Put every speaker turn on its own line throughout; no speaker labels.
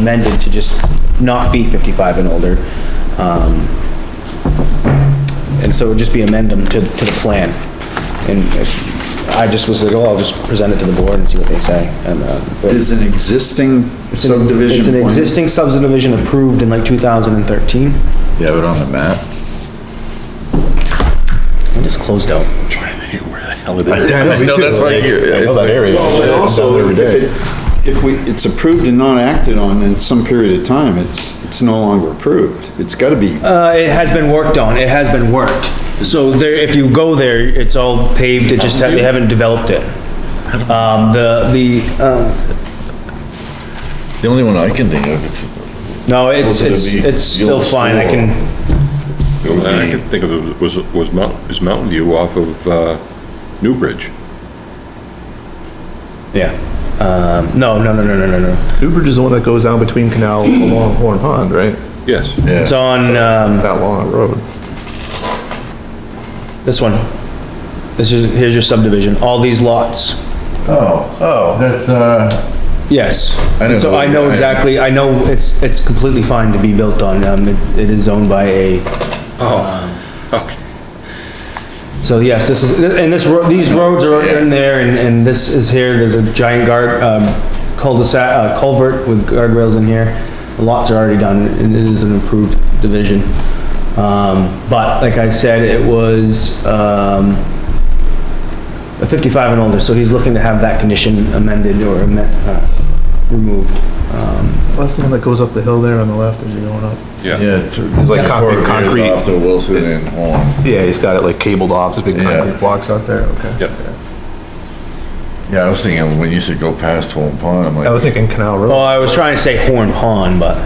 amended to just not be 55 and older. Um, And so it would just be amendum to, to the plan. And if- I just was like, oh, I'll just present it to the board and see what they say. And, uh, but-
Is an existing subdivision.
It's an
plan?
existing subdivision approved in like 2013.
You have it on the map?
I just closed out.
Trying to think where the hell it is.
Yeah, I know, that's why you're-
I know that area.
Well, but
I'm down
also,
there every
if
day.
it, if we, it's approved and not acted on in some period of time, it's, it's no longer approved. It's gotta be,
Uh, it has been worked on, it has been worked. So there, if you go there, it's all paved, it just, ha- they haven't developed it. Um, the, the, um,
The only one I can think of, it's,
no, it's,
Those are
it's,
the
it's still
old
fine, I
store.
can,
The only thing I can think of was, was Mountain, is Mountain View off of, uh, Newbridge.
yeah. Um, no, no, no, no, no, no, no.
Newbridge is the one that goes down between Canal along Horn Pond, right?
Yes.
It's on, um,
That long road.
this one. This is, here's your subdivision, all these lots.
oh, oh, that's, uh,
Yes.
I know
So
the-
I know
I-
exactly, I know it's, it's completely fine to be built on, um, it, it is owned by a,
Okay.
so yes, this is, and this, ro- these roads are in there, and, and this is here, there's a giant guard, um, cul-de-sac, uh, culvert with guardrails in here. Lots are already done, and it is an improved division. Um, but like I said, it was, um, a fifty-five and older, so he's looking to have that condition amended or, amen- uh, removed.
That's the one that goes up the hill there on the left as you're going up.
Yeah.
yeah, it's it's like
Concrete-
four
concrete.
years off to Wilson and Horn.
Yeah, he's got it like cabled off, there's big
Yeah.
concrete blocks out there, okay.
Yeah.
Yeah, I was thinking, when you said go past Horn Pond, I'm
I was
like,
thinking Canal
Well,
Road.
Oh, I was trying to say Horn Pond, but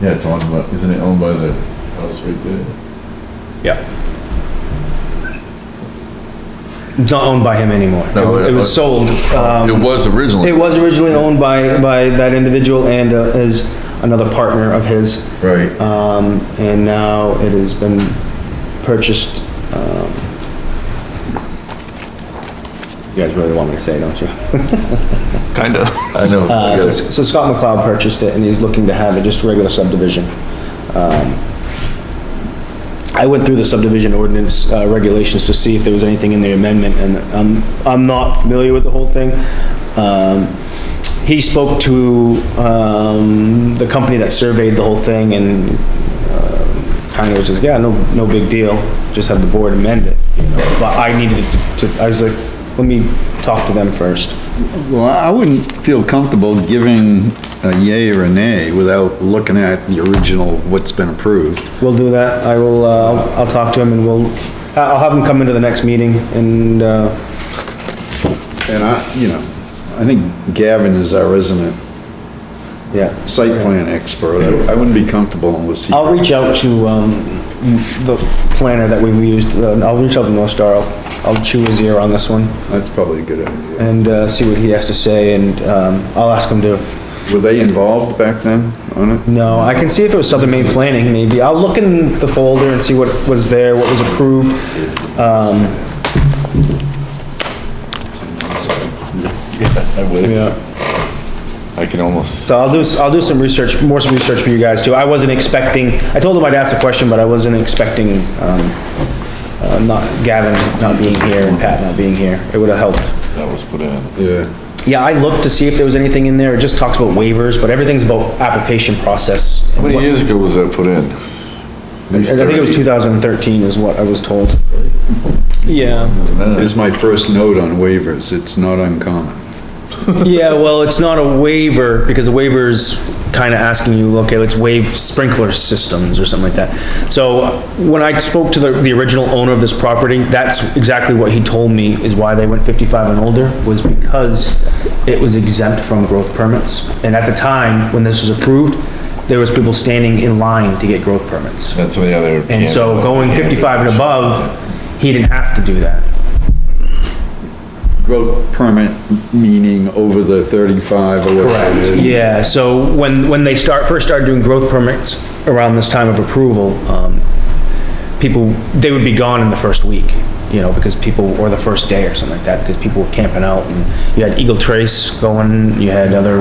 yeah, it's owned by, isn't it owned by the house right there?
yeah. It's not owned by him anymore.
No,
It
it
was
was-
sold. Um,
It was originally.
it was originally owned by, by that individual and uh, his, another partner of his.
Right.
Um, and now it has been purchased, um, you guys really want me to say, don't you?
Kinda.
I know.
Uh, so- so Scott McLeod purchased it and he's looking to have it just regular subdivision. Um, I went through the subdivision ordinance, uh, regulations to see if there was anything in the amendment and I'm, I'm not familiar with the whole thing. Um, he spoke to, um, the company that surveyed the whole thing and, uh, kind of was just, yeah, no, no big deal, just have the board amend it, you know? But I needed to, I was like, let me talk to them first.
well, I wouldn't feel comfortable giving a yay or a nay without looking at the original, what's been approved.
We'll do that. I will, uh, I'll- I'll talk to him and we'll, I- I'll have him come into the next meeting and, uh,
And I, you know, I think Gavin is our resident
yeah.
site plan expert. I I wouldn't be comfortable unless he,
I'll reach out to, um, the planner that we used, uh, I'll reach out to North Star. I'll- I'll chew his ear on this one
that's probably a good idea.
and, uh, see what he has to say and, um, I'll ask him to.
Were they involved back then on it?
No, I can see if it was Southern Maine Planning maybe. I'll look in the folder and see what was there, what was approved. Um,
I would,
yeah.
I can almost,
So I'll do, I'll do some research, more some research for you guys too. I wasn't expecting, I told him I'd ask the question, but I wasn't expecting, um, uh, not Gavin not being here and Pat not being here. It would've helped.
that was put in.
Yeah.
Yeah, I looked to see if there was anything in there. It just talks about waivers, but everything's about application process.
How many
I
years ago was that put in?
think it was two thousand and thirteen is what I was told. Yeah.
Is my first note on waivers, it's not uncommon.
Yeah, well, it's not a waiver, because a waiver is kind of asking you, okay, let's waive sprinkler systems or something like that. So when I spoke to the, the original owner of this property, that's exactly what he told me is why they went fifty-five and older, was because it was exempt from growth permits. And at the time, when this was approved, there was people standing in line to get growth permits.
That's what the other.
And so going fifty-five and above, he didn't have to do that.
Growth permit meaning over the 35 or whatever. it is.
Yeah, so when, when they start, first started doing growth permits around this time of approval, um, people, they would be gone in the first week, you know, because people, or the first day or something like that, because people were camping out, and you had Eagle Trace going, you had other